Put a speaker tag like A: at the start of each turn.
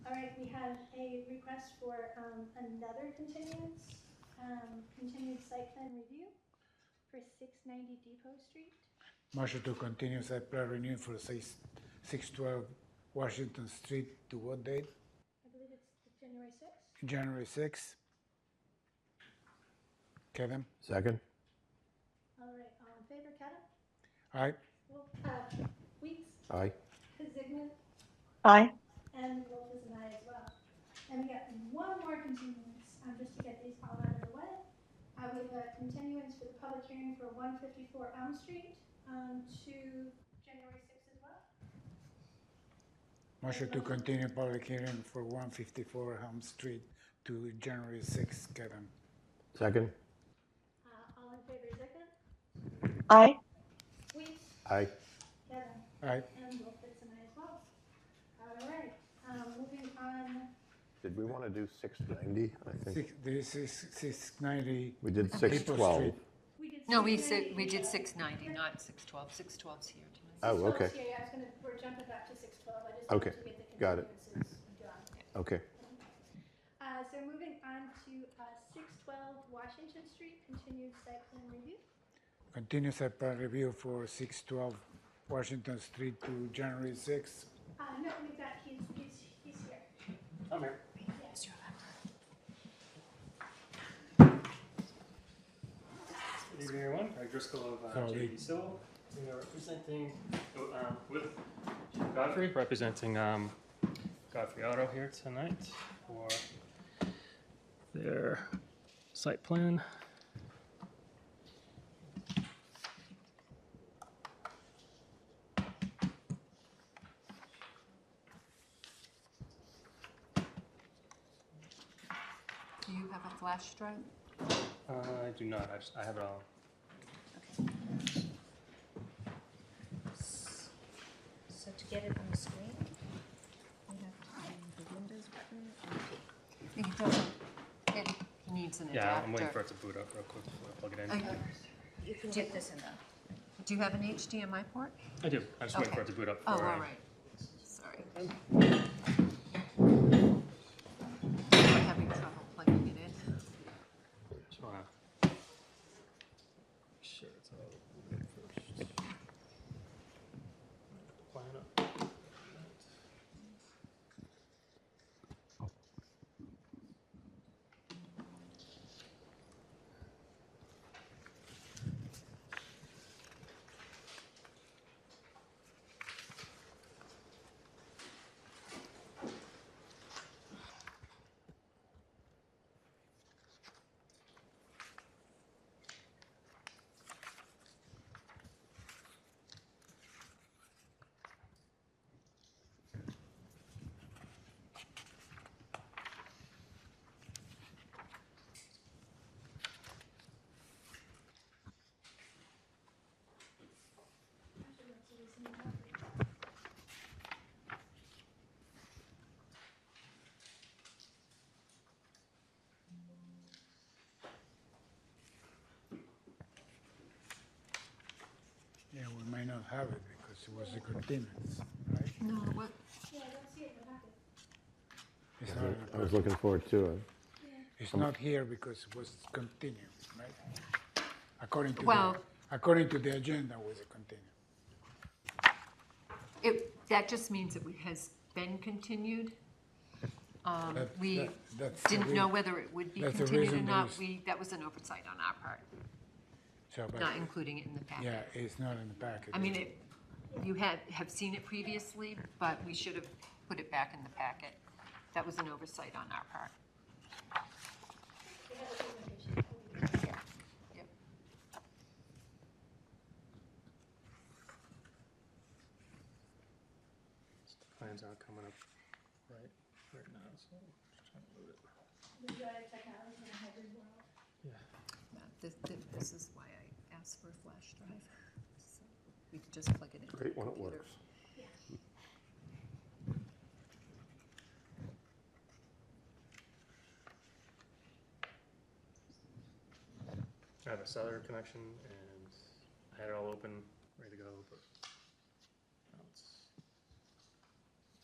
A: we have a request for um, another continuance, um, continued site plan review for 690 Depot Street.
B: Motion to continue site plan renewal for six, six twelve Washington Street to what date?
A: I believe it's January 6th.
B: January sixth? Kevin?
C: Second?
A: All right, all in favor, Kata?
B: Aye.
A: Wolf, uh, Weeks,
C: Aye.
A: Kazigna,
D: Aye.
A: and Wolf is an aye as well. And we got one more continuance, um, just to get these all out of the way. Uh, we have a continuance for the public hearing for one fifty-four Elm Street, um, to January sixth as well.
B: Motion to continue public hearing for one fifty-four Helm Street to January sixth, Kevin?
C: Second?
A: Uh, all in favor, Zigna,
D: Aye.
A: Weeks,
C: Aye.
A: Kevin.
B: Aye.
A: And we'll fit some as well. All right, um, moving on,
C: Did we want to do 690? I think
B: Six, this is six ninety.
C: we did 612.
A: we did.
E: No, we
A: 690.
E: said, we did 690, not 612. 612's here tonight.
F: Uh,
C: Oh,
A: 612
C: okay.
A: is here. Yeah, I was gonna, we're jumping back to six twelve, I just wanted
C: Okay,
A: to get the
C: got it.
A: continuances done.
C: Okay.
A: Uh, so moving on to, uh, six twelve Washington Street, continued site plan review.
B: Continue site plan review for six twelve Washington Street to January sixth.
A: Uh, no, we've got, he's, he's, he's here.
F: Good evening, everyone. Greg Driscoll of uh,
B: Howdy.
F: JD Civil. We are representing oh, um, with Jim Godfrey, representing um, Godfrey Auto here tonight for their site plan.
E: Do you have a flash drive?
F: Uh, I do not. I, just, I have it all.
G: So to get it on the screen, we have to do the Windows button and
E: He doesn't, it- he needs an
F: Yeah, I'm waiting for
E: adapter.
F: it to boot up real quick before I plug it in.
E: Oh,
G: you can get this in the.
E: Do you have an HDMI port?
F: I do. I'm just waiting
E: Okay.
F: for it to boot up.
E: Oh, all
F: for, uh,
E: right. Sorry. We're having trouble plugging it in.
F: Just wanna make sure it's all good first. Line up.
B: Yeah, we may not have it because it was a continuance, right?
E: No, what,
A: Yeah, I don't see it, but I have it.
B: It's not,
C: I was looking forward to it.
B: it's not here because it was continued, right? According to, the
E: Well-
B: according to the agenda, was a continued.
E: it, that just means it has been continued. Um,
B: That-
E: We
B: that- that's the
E: didn't know
B: reason.
E: whether it would be
B: That's the
E: continued or
B: reason
E: not.
B: there's-
E: We, that was an oversight on our part,
B: So, but,
E: not including it in the packet.
B: yeah, it's not in the packet.
E: I mean, it, you had, have seen it previously, but we should have put it back in the packet. That was an oversight on our part.
A: We have a presentation.
E: Yep.
F: Plans aren't coming up right, right now, so just trying to move it.
A: We've got a technology and a hybrid world.
E: Yeah, This, this- this is why I asked for a flash drive. So We could just plug it in.
C: Great when it works.
F: I have a cellular connection and I had it all open